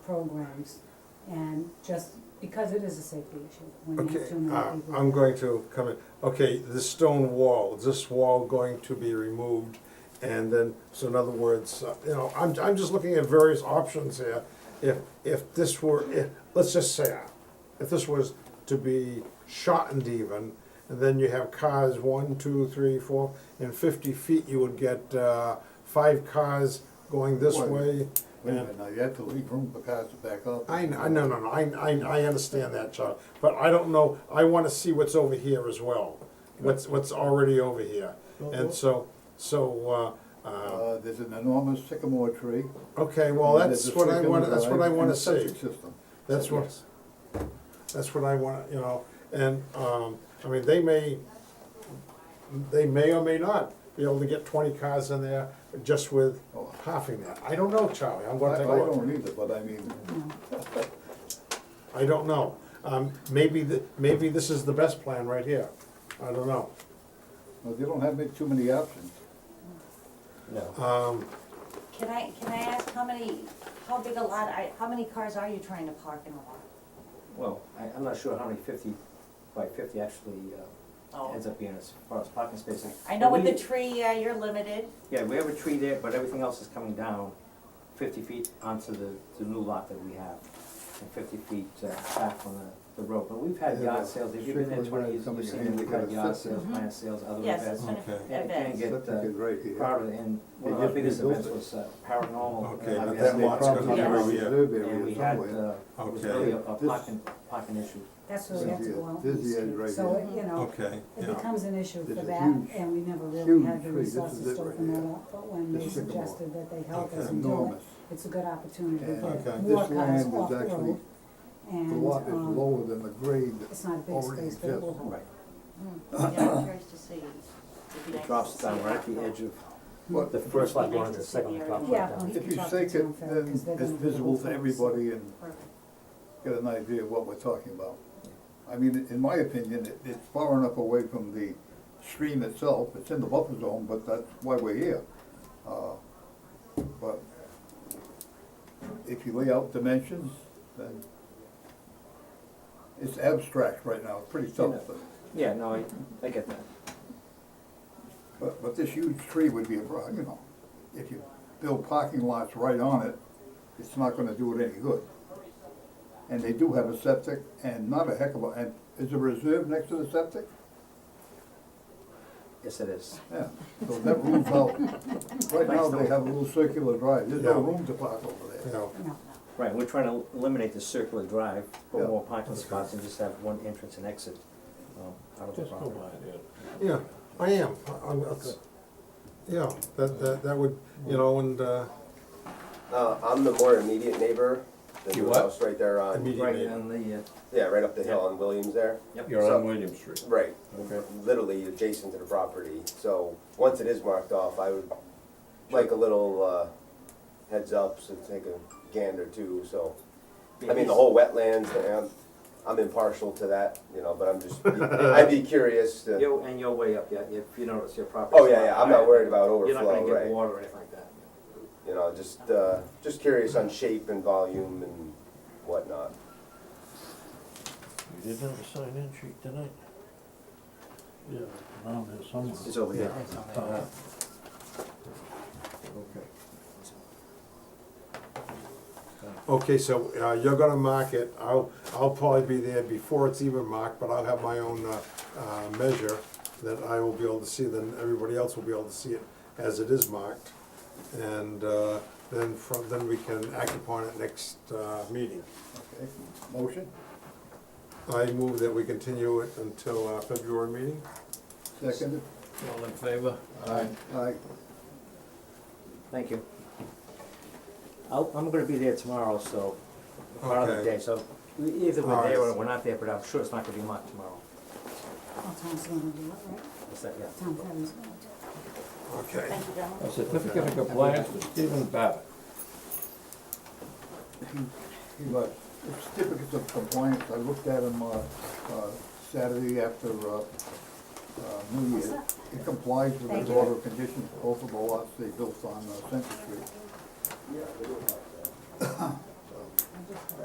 programs, and just because it is a safety issue, when you Okay, have too many uh, people. I'm going to come in. Okay, the stone wall, is this wall going to be removed? And then, so in other words, uh, you know, I'm, I'm just looking at various options here. If, if this were, if, let's just say, uh, if this was to be shortened even, and then you have cars, one, two, three, four, and fifty feet, you would get, uh, five cars going this Well, way. Wait a minute, now you have to leave room for cars to back up. I, kn- I, no, no, no, I, I, I understand that, Charlie, but I don't know, I wanna see what's over here as well, what's, what's already over here. And so, so, uh, uh, Uh, there's an enormous sycamore tree. okay, well, and that's there's a what I sprinkler wanna, that's what I line and wanna a septic see, System. that's what, that's what I wanna, you know, and, um, I mean, they may, they may or may not be able to get twenty cars in there just with Oh. halving that, I don't know, Charlie, I'm I, gonna I take a look. don't either, but I mean, I don't know. Um, maybe th- maybe this is the best plan right here. I don't know. well, they don't have ma- too many options. No. Can I, can I ask how many, how big a lot, I, how many cars are you trying to park in a lot? Well, I, I'm not sure how many fifty by fifty actually, uh, Oh. ends up being as far as parking spaces. I know But with the we- tree, yeah, you're limited, Yeah, we have a tree there, but everything else is coming down fifty feet onto the, the new lot that we have. And fifty feet, uh, back on the, the road, but we've had Yeah, yard but sales, if you've been there strictly when twenty it years, comes to you've seen, we've had handicap yard access. sales, plant sales, other Mm-hmm. yes, it's events. been Okay. And it can events. get, Septic is uh, right here. crowded, and one of They our just biggest rebuilt events it. was uh, Okay, paranormal. uh, but They that obviously, lot's gonna probably be have a over here. reserve area And we had, somewhere. uh, it was Okay. really a a This- parking, parking issue. That's where we have to go out This and is the end right see, so, here. it, you know, it becomes an issue for This is that, huge, and we never really huge had the tree. This is resources it to right open that here. up, but when they This sycamore. suggested that they help Okay. us and do it, Enormous. it's a good opportunity to And get Okay. more this cars land off is the actually, road, the and, lot is um, lower than the grade. it's not a big already space, but it will exists. help. Mm, Yeah, I'm curious to see. It'd be nice It to drops see down it right at the outgrow. edge of, But the first lot It'd be going to nice the to see second the lot drops area. Yeah, down. we if can you talk to shake Tom it, Farrell, then 'cause they're it's gonna be the visible whole to focus. everybody and Perfect. get an idea of what we're talking about. I mean, in my opinion, it, it's far enough away from the stream itself, it's in the buffer zone, but that's why we're here. Uh, But if you lay out dimensions, then it's abstract right now, it's pretty tough, but, yeah, no, I, I get that. but, but this huge tree would be a problem, you know. If you build parking lots right on it, it's not gonna do it any good. And they do have a septic and not a heck of a, and is there a reserve next to the septic? Yes, it is. Yeah, so that rules out, right now they have a little circular drive, there's no Yeah. room to park over You there. know, No, Right, we're trying to eliminate the circular drive, Yeah. put more parking spots and just have one entrance and exit, um, out of the property. yeah, I am. I- I'm, that's, yeah, that, that, that would, you know, and, uh, Uh, I'm the more immediate neighbor, the You new what? house right there on, Immediate. Right on the, uh, yeah, right up the hill on Williams there. You're So- on William Street. Right, Okay. literally adjacent to the property, so once it is marked off, I would like a little, uh, heads up, so take a gander too, so. I mean, the whole wetlands, and I'm impartial to that, you know, but I'm just, I'd be curious to, you and you're way up, yeah, if you notice your property. oh, yeah, yeah, I'm not worried about You're not gonna overflow, get right? water or anything like that. You know, just, uh, just curious on shape and volume and whatnot. You didn't have a sign-in sheet tonight? Yeah, around there somewhere. It's over here. Uh, Okay. okay, so, uh, you're gonna mark it. I'll, I'll probably be there before it's even marked, but I'll have my own, uh, uh, measure that I will be able to see, then everybody else will be able to see it as it is marked. And, uh, then from, then we can act upon it next, uh, meeting. Okay, motion, I move that we continue it until our February meeting. seconded, All in favor? aye, aye. Thank you. I'll, I'm gonna be there tomorrow, so, part of the Okay. day, so e- either All we're right. there or we're not there, but I'm sure it's not gonna be marked tomorrow. well, Tom's gonna do it, right? Is that, yeah. Tom Farrell's gonna do it. Okay. Thank you, gentlemen. A certificate of compliance for Stephen Babbitt. He left. The certificates of compliance, I looked at them, uh, uh, Saturday after, uh, uh, New Year's. It complies with Thank the you. order of conditions, both of the lots they built on uh, Center Street.